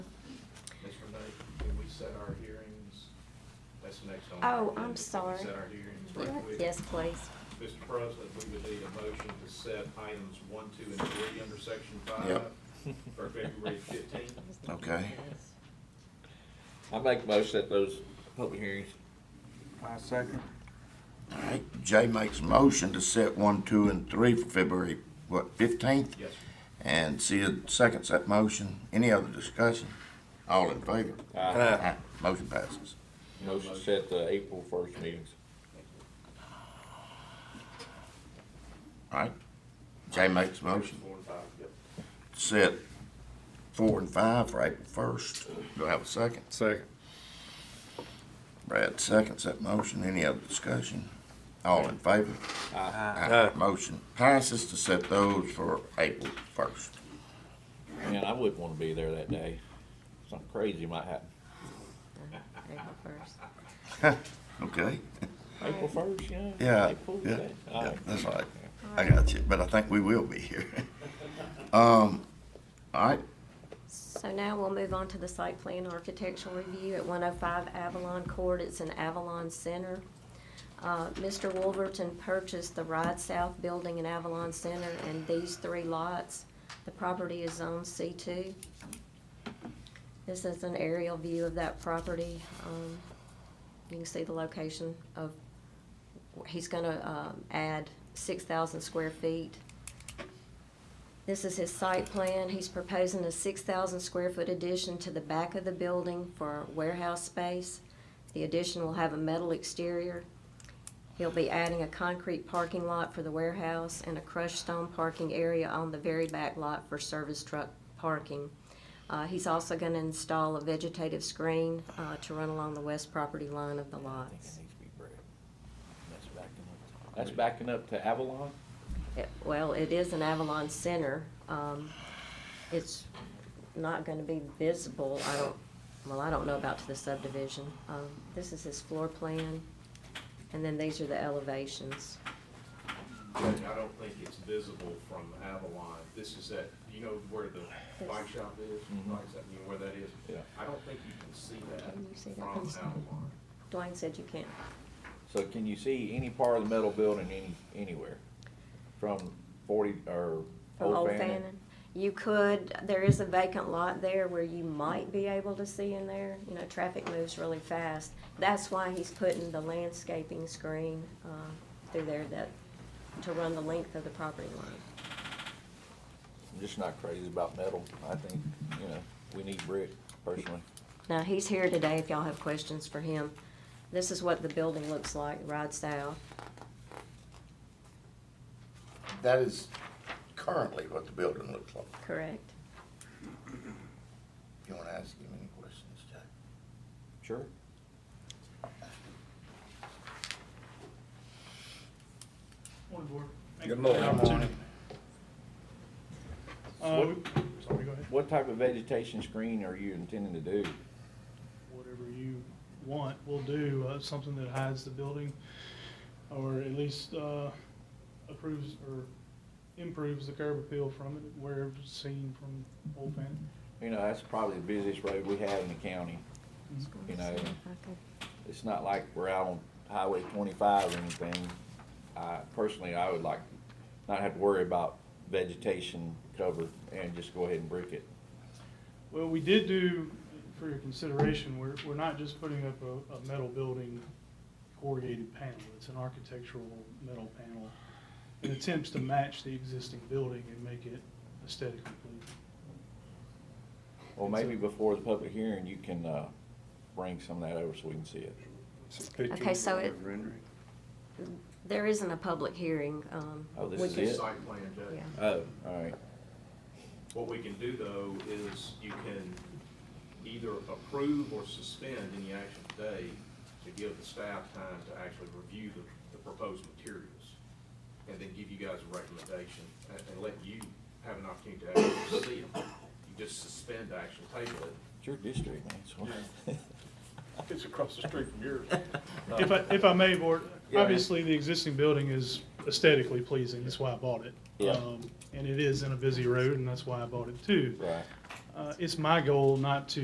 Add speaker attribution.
Speaker 1: Oh, I'm sorry.
Speaker 2: Set our hearings right quick.
Speaker 1: Yes, please.
Speaker 2: Mr. President, we would need a motion to set items one, two, and three under section five
Speaker 3: Yep.
Speaker 2: for February fifteenth.
Speaker 3: Okay.
Speaker 4: I make most at those public hearings.
Speaker 5: My second.
Speaker 3: All right, Jay makes a motion to set one, two, and three for February, what, fifteenth?
Speaker 2: Yes,
Speaker 3: And Sid seconds that motion. Any other discussion? All in favor?
Speaker 4: Aye.
Speaker 3: Aye. Motion passes.
Speaker 4: Motion set the April first meetings.
Speaker 3: All right. Jay makes a motion
Speaker 2: four and five, yep.
Speaker 3: to set four and five for April first. Do I have a second?
Speaker 6: Second.
Speaker 3: Brad seconds that motion. Any other discussion? All in favor? Aye. Motion passes to set those for April first.
Speaker 4: Man, I wouldn't wanna be there that day. Something crazy might happen.
Speaker 1: April first.
Speaker 3: Okay?
Speaker 4: April first, you know?
Speaker 3: Yeah,
Speaker 4: April,
Speaker 3: yeah,
Speaker 4: okay. All
Speaker 3: yeah,
Speaker 4: right.
Speaker 3: that's right. I got you, but I think we will be here. Um, all right,
Speaker 1: So now we'll move on to the site plan architectural review at one oh five Avalon Court. It's in Avalon Center. Uh, Mr. Wolverton purchased the Ride South building in Avalon Center and these three lots. The property is zoned C two. This is an aerial view of that property. Um, you can see the location of, he's gonna, um, add six thousand square feet. This is his site plan. He's proposing a six thousand square foot addition to the back of the building for warehouse space. The addition will have a metal exterior. He'll be adding a concrete parking lot for the warehouse and a crushed stone parking area on the very back lot for service truck parking. Uh, he's also gonna install a vegetative screen, uh, to run along the west property line of the
Speaker 4: I think it
Speaker 1: lots.
Speaker 4: needs to be bred. That's backing up. That's backing up to Avalon?
Speaker 1: It- Well, it is an Avalon Center. Um, It's not gonna be visible, I don't, well, I don't know about to the subdivision. Um, This is his floor plan, and then these are the elevations.
Speaker 2: Judge, I don't think it's visible from Avalon. This is at, you know where the bike shop is? Bike shop, you know where that is?
Speaker 4: Mm-hmm. Yeah.
Speaker 2: I don't think you can see that
Speaker 1: Can you see that
Speaker 2: from
Speaker 1: from the side?
Speaker 2: Avalon.
Speaker 1: Dwayne said you can't.
Speaker 4: So can you see any part of the metal building any, anywhere? From forty, or
Speaker 1: From
Speaker 4: Old
Speaker 1: Old
Speaker 4: Fannin?
Speaker 1: Fannin. You could, there is a vacant lot there where you might be able to see in there. You know, traffic moves really fast. That's why he's putting the landscaping screen uh, through there that, to run the length of the property line.
Speaker 4: I'm just not crazy about metal. I think, you know, we need brick personally.
Speaker 1: Now, he's here today if y'all have questions for him. This is what the building looks like, ride south.
Speaker 3: that is currently what the building looks like.
Speaker 1: Correct.
Speaker 3: You wanna ask him any questions, Jay?
Speaker 4: Sure.
Speaker 7: Morning, Board. Thank
Speaker 6: Good
Speaker 7: you for the
Speaker 6: morning.
Speaker 7: opportunity. Uh,
Speaker 4: What-
Speaker 7: we- sorry, go ahead.
Speaker 4: What type of vegetation screen are you intending to do?
Speaker 7: Whatever you want, we'll do, uh, something that hides the building, or at least, uh, approves or improves the curb appeal from it, where it's seen from Old Fannin.
Speaker 4: You know, that's probably the busiest road we have in the county. You know, it's not like we're out on Highway twenty-five or anything. I, personally, I would like not have to worry about vegetation cover and just go ahead and brick it.
Speaker 7: Well, we did do, for your consideration, we're, we're not just putting up a, a metal building corrugated panel. It's an architectural metal panel. It attempts to match the existing building and make it aesthetically pleasing.
Speaker 4: Well, maybe before the public hearing, you can, uh, bring some of that over so we can see it.
Speaker 1: Okay, so it- There isn't a public hearing. um,
Speaker 4: Oh, this
Speaker 1: we
Speaker 4: is
Speaker 1: can-
Speaker 4: it?
Speaker 2: Site plan, Judge.
Speaker 1: Yeah.
Speaker 4: Oh, all right.
Speaker 2: What we can do, though, is you can either approve or suspend any action today to give the staff time to actually review the, the proposed materials, and then give you guys a recommendation, and, and let you have an opportunity to actually see them. You just suspend action, table it.
Speaker 4: It's your district, man, so.
Speaker 6: It's across the street from yours.
Speaker 7: If I, if I may, Board,
Speaker 4: Yeah.
Speaker 7: obviously, the existing building is aesthetically pleasing, that's why I bought it.
Speaker 4: Yeah.
Speaker 7: Um, And it is in a busy road, and that's why I bought it too.
Speaker 4: Right.
Speaker 7: Uh, It's my goal not to